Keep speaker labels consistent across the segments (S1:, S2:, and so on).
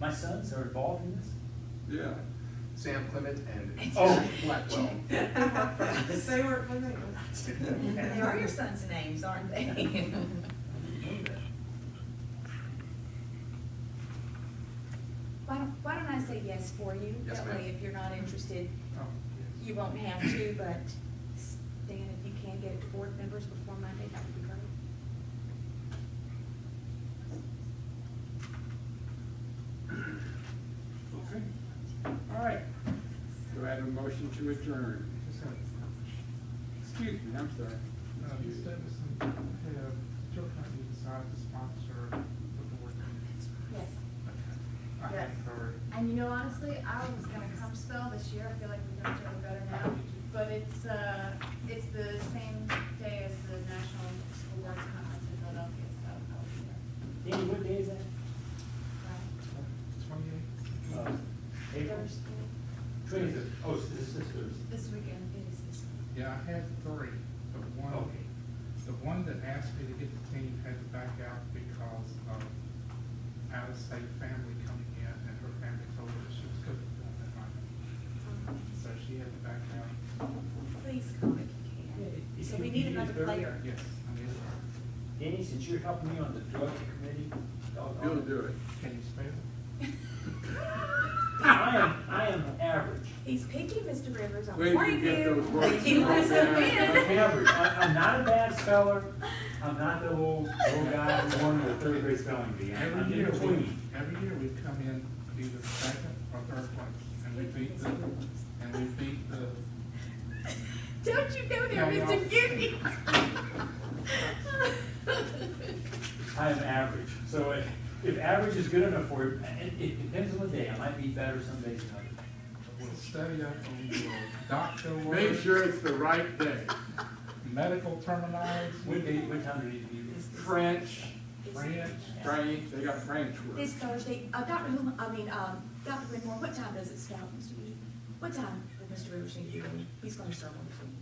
S1: My sons are involved in this?
S2: Yeah,
S3: Sam Clement and.
S1: Oh.
S3: Blackwell.
S4: They were, I think,
S5: They are your son's names, aren't they?
S6: Why don't, why don't I say yes for you?
S3: Yes,
S6: That way,
S3: ma'am.
S6: if you're not interested,
S3: Oh, yes.
S6: you won't have to, but Stan, if you can get it to board members before Monday, that would be great.
S2: okay. All right. Do I have a motion to adjourn?
S7: Just have, uh,
S2: Excuse me, I'm sorry.
S7: Ms.
S2: Excuse me.
S7: Stevenson, have your company decided to sponsor the board meetings?
S8: Yes.
S7: I
S8: Yes.
S7: haven't heard.
S8: And you know, honestly, I was gonna come spell this year, I feel like we're doing it better now, but it's, uh, it's the same day as the National School Boards Conference in Philadelphia, so I'll be there.
S1: Danny, what day is that?
S8: Right.
S7: Twenty-eight?
S1: Uh, April? Twenty.
S9: Oh, so this is Thursday.
S8: This weekend, it is this weekend.
S7: Yeah, I had three, but one,
S9: Okay.
S7: the one that asked me to get the team had to back out because of out-of-state family coming in, and her family told her that she was cooking for them that night. So she had to back out.
S5: Please come if you can. So we need another player.
S7: Yes, I mean,
S1: Danny, since you're helping me on the drug committee. I'll-
S2: You'll do it.
S7: can you spell it?
S1: I am, I am average.
S5: He's picky, Mr. Rivers, I'm
S2: Wait, you
S5: warning
S2: get
S5: you.
S2: those words
S5: He lives
S2: wrong.
S1: I'm
S5: in.
S1: average. I- I'm not a bad speller. I'm not the old, old guy who won the third grade spelling bee. I'm I'm
S7: Every
S1: in
S7: year, we,
S1: between.
S7: every year we come in either second or third place, and we beat the, and we beat the,
S8: Don't you go there,
S7: No, no.
S8: Mr. Gibby.
S1: I am average. So if, if average is good enough for you, it, it depends on the day. I might be better some days than others.
S7: we'll study up on your doctor work.
S2: Make sure it's the right day.
S7: Medical terminology.
S1: What day, what time do you need to be? there?
S2: French,
S7: French.
S2: French, they got French
S5: This
S2: words.
S5: Thursday, uh, Dr. Whom, I mean, um, Dr. Whitmore, what time does it start, Mr. Rivers? What time will Mr. Rivers need to be? in? He's gonna start on the phone.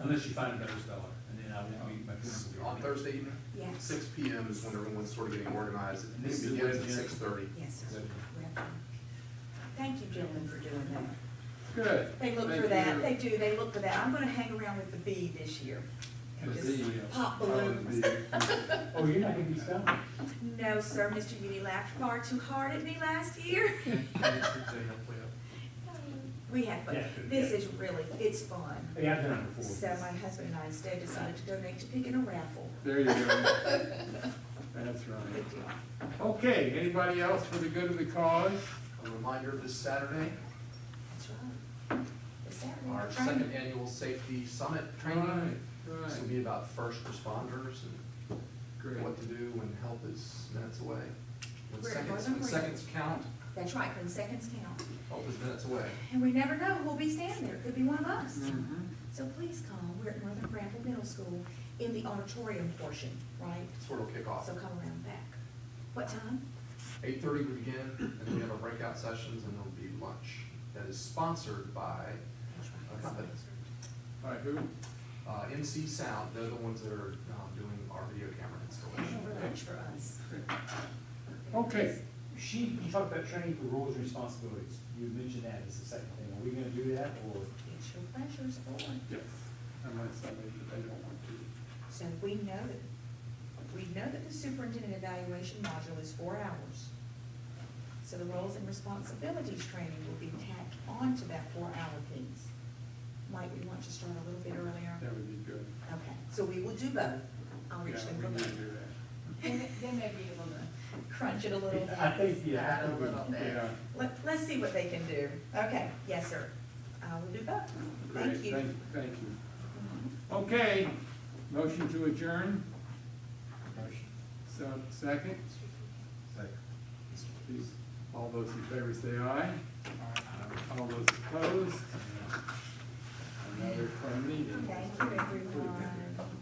S1: Unless you find a better speller, and then I will, my parents will be.
S3: On Thursday evening,
S5: Yes,
S3: six P M is when everyone's sort of getting organized, and
S1: This is
S3: it begins at
S1: legit.
S3: six thirty.
S5: yes, sir. Thank you, gentlemen, for doing that.
S2: Good.
S5: They look
S2: Thank
S5: for that,
S2: you.
S5: they do, they look for that. I'm gonna hang around with the bee this year.
S2: The
S5: and just
S2: bee, yeah.
S5: Pop
S2: Oh, the
S5: balloons.
S1: Oh, you're not gonna be spelling?
S5: No, sir, Mr. Udi laughed far too hard at me last year. We have, but
S1: Yeah.
S5: this is really, it's fun.
S1: Yeah, I've done it before.
S5: So my husband and I instead decided to donate to picking a raffle.
S2: There you go. That's right.
S5: Good deal.
S2: Okay, anybody else for the good of the cause?
S3: A reminder, this Saturday,
S5: That's right. It's Saturday,
S3: our
S5: right?
S3: second annual safety summit
S2: Right,
S3: training. This will
S2: right,
S3: be about first responders and
S2: great.
S3: what to do when help is minutes away. When
S5: Where it
S3: seconds,
S5: wasn't
S3: when
S5: written.
S3: seconds count,
S5: That's right, when seconds count.
S3: help is minutes away.
S5: And we never know who'll be standing there, could be one of us.
S2: Mhm.
S5: So please come, we're at Northern Bramble Middle School in the auditorium portion, right?
S3: Sort of kick off.
S5: So come around back. What time?
S3: Eight thirty we begin, and then we have our breakout sessions, and there'll be lunch that is sponsored by
S5: That's right.
S3: a company.
S2: By who?
S3: Uh, MC Sound, they're the ones that are, um, doing our video camera installation.
S5: Over lunch for us.
S2: Okay,
S1: She, you talked about training for roles and responsibilities. You mentioned that as the second thing. Are we gonna do that or?
S5: It's your pleasure, it's on.
S2: yes, unless somebody, they don't want to.
S5: So we know that, we know that the superintendent evaluation module is four hours. So the roles and responsibilities training will be tacked onto that four-hour piece. Might we want to start a little bit earlier?
S2: That would be good.
S5: Okay, so we will do both. I'll reach
S2: Yeah,
S5: them
S2: we
S5: for
S2: need to
S5: both.
S2: do that.
S8: They may they may be able to
S5: Crunch it a little bit.
S1: I think, yeah.
S8: add a little bit.
S2: Yeah,
S5: Let, let's see what they can do. Okay, yes, sir. I will do both.
S2: great,
S5: Thank you.
S2: thank, thank you. Okay, motion to adjourn,
S9: Motion.
S2: so, second,
S9: Second.
S2: please, all those in favor say aye. All those opposed? Another from me.
S5: Thank you, everyone.